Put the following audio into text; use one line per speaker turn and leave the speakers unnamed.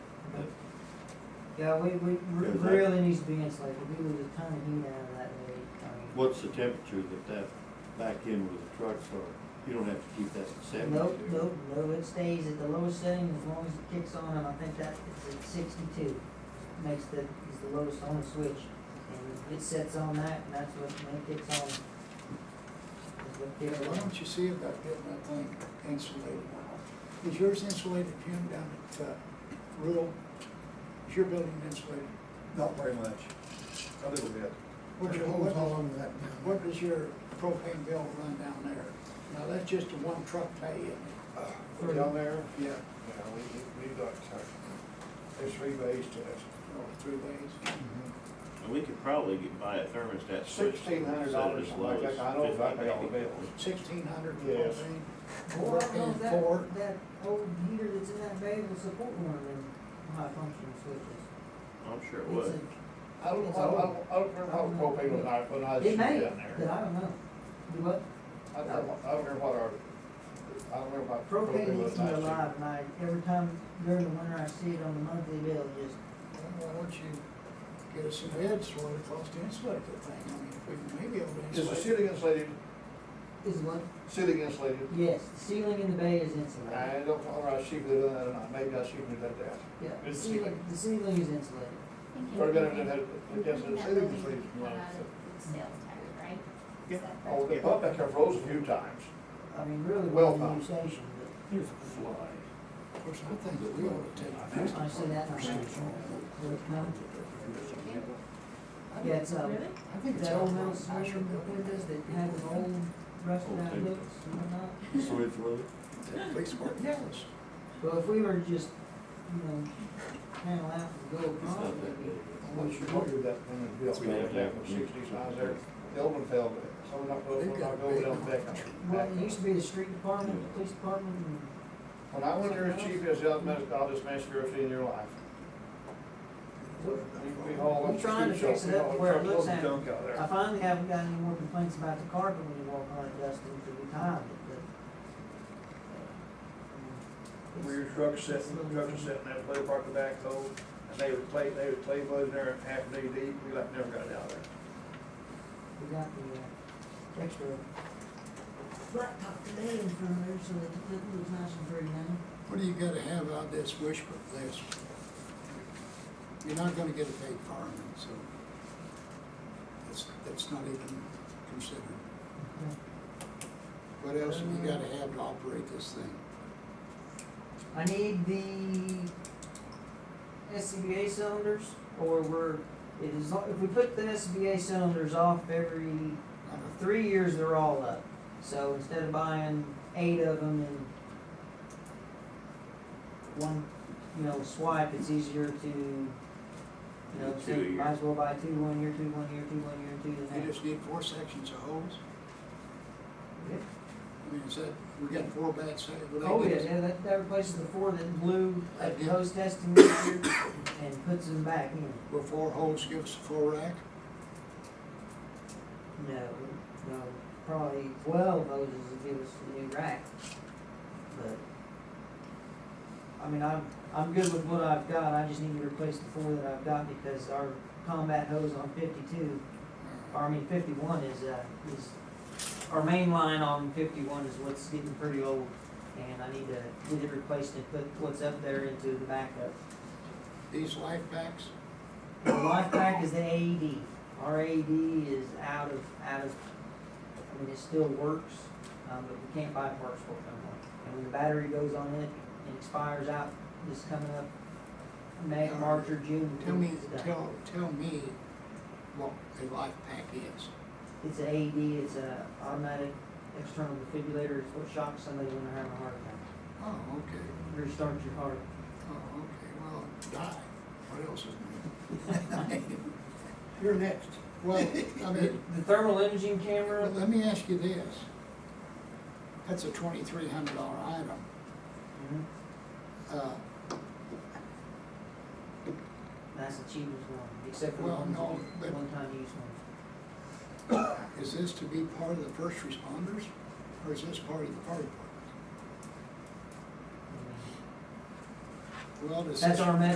Yeah, we, we re-
Is that-
really needs to be insulated, we lose a ton of heat out of that lake. um,
What's the temperature that that back end with the trucks are? You don't have to keep that at
Nope,
seventy-two.
nope, no, it stays at the lowest setting as long as it kicks on, and I think that it's at sixty-two, makes the, is the lowest on the switch. And it sets on that, and that's what, when it kicks on. is what
Yeah,
kicks
why
on.
don't you see about getting that thing insulated? Is yours insulated, Jim, down at, uh, rural? Is your building insulated?
Not very much, a little bit.
What's your,
There's holes all
what,
over that now.
what does your propane bill run down there? Now, that's just a one truck pay, isn't it?
Uh, we're Down there,
Yeah,
yeah, we, we- we've got, uh, there's three ways to this.
or Oh, three ways.
And we could probably get, buy a thermostat switch.
Sixteen hundred dollars, something like that, I know, if I pay all the bills.
Sixteen hundred
Yes.
propane?
Or, no,
Four.
Oh, that, that old heater that's in that bay will support one of them high functioning switches.
I'm sure it
It's
would.
a-
I don't know, how- I don't, I don't remember how the propane was, I- when I was
It
down
may,
there.
but I don't know. Do what?
I don't, remember- I don't remember what our, I don't remember what
Propane
propane
needs
was
to be
last year.
alive, and I, every time during the winter I see it on the monthly bill, just,
Well, Why don't you get us some bids, what it costs to insulate that thing? I mean, if we can maybe able to
Is the
insulate. it.
ceiling insulated,
is what?
ceiling insulated?
Yes, the ceiling in the bay is insulated.
I don't know whether I see if they done that or not, maybe I see if they did that.
Yeah, the
It's
ceiling,
ceiling.
the ceiling is insulated.
Or better than that, it does the ceiling insulated.
That building cut out of Sales tax, right?
Yeah.
Is that
Oh,
correct?
they bumped that car froze a few times.
I mean, really, well,
Well
the new
done.
station,
Here's a fly.
Of course, I think that we ought to take.
but I see that, and I think, well, it's not. Yeah, it's, um,
Really?
I think it's
that
all
old
real
house,
nice.
windows that have an old rusted out looks and whatnot.
Switch with it?
Police work. Yes.
Well, if we were to just, you know, panel out and go
It's
across,
not that
maybe.
big.
Once you ordered that thing and built,
It's gonna have
it
to
back in
happen.
the sixties, I was there, the old one fell, but someone knocked over,
They've got
knocked over,
big-
down the back. up.
Well, it used to be the street department, the police department, and
When I went there as chief, as the oddest, oddest conspiracy in your life. We hauled
I'm
up
trying
the
to
scoop
fix
shop,
it
we
up
hauled
where it
truckloads of
looks
junk
I
out there.
finally haven't got any more complaints about the carpet when you walk on it, Dustin, because we timed it, but. uh,
Where your
it's-
trucks
it's
sitting,
little
trucks are
thing.
sitting there, play park the backhoe, and they were clay, they were clay mud in there half knee deep, we like never got it out of there.
We got the, uh, extra blacktop today in front of there, so that it looks nice and pretty now.
What do you gotta have on this wish list? You're not gonna get a paid fireman, so that's, that's not even considered. What else have you
Uh.
gotta have to operate this thing?
I need the SCBA cylinders, or we're, it is, if we put the SCBA cylinders off every
I don't-
three years they're all up. So instead of buying eight of them in one, you know, swipe, it's easier to, you know,
Two a
say,
year.
might as well buy two one year, two one year, two one year, two the
You
next.
just need four sections of hose?
Yeah.
I mean, is that, we got four bad sides?
Oh, yeah, yeah, that, that replaces the four that blew at
Yeah.
post testing this year and puts them back in.
Will four holes give us a four rack?
No, no, probably twelve hoses would give us a new rack, but. I mean, I'm, I'm good with what I've got, I just need to replace the four that I've got because our combat hose on fifty-two, or I mean fifty-one is, uh, is. Our main line on fifty-one is what's getting pretty old, and I need to get it replaced and put what's up there into the backup.
These life packs?
The life pack is the E AED. Our AED E is out of, out of, I mean, it still works, um, but we can't buy parts for it anymore. And when the battery goes on it and expires out, this coming up, May, March or June.
Tell me,
it's done.
tell, tell me what a life pack is.
It's an AED, it's a automatic external defibrillator, it's what shocks somebody when they're having a heart attack.
Oh, okay,
Restarts your heart.
oh, okay, well, die, what else is new?
You're next.
Well, I
The
mean,
the thermal imaging camera,
let me ask you this. That's a twenty-three hundred dollar item. Mm-hmm.
mhm,
Uh,
that's the cheapest one, except for the
Well,
ones that
no,
you-
but-
one-time use ones.
is this to be part of the first responders, or is this part of the fire department?
I mean,
Well, does this?
That's our message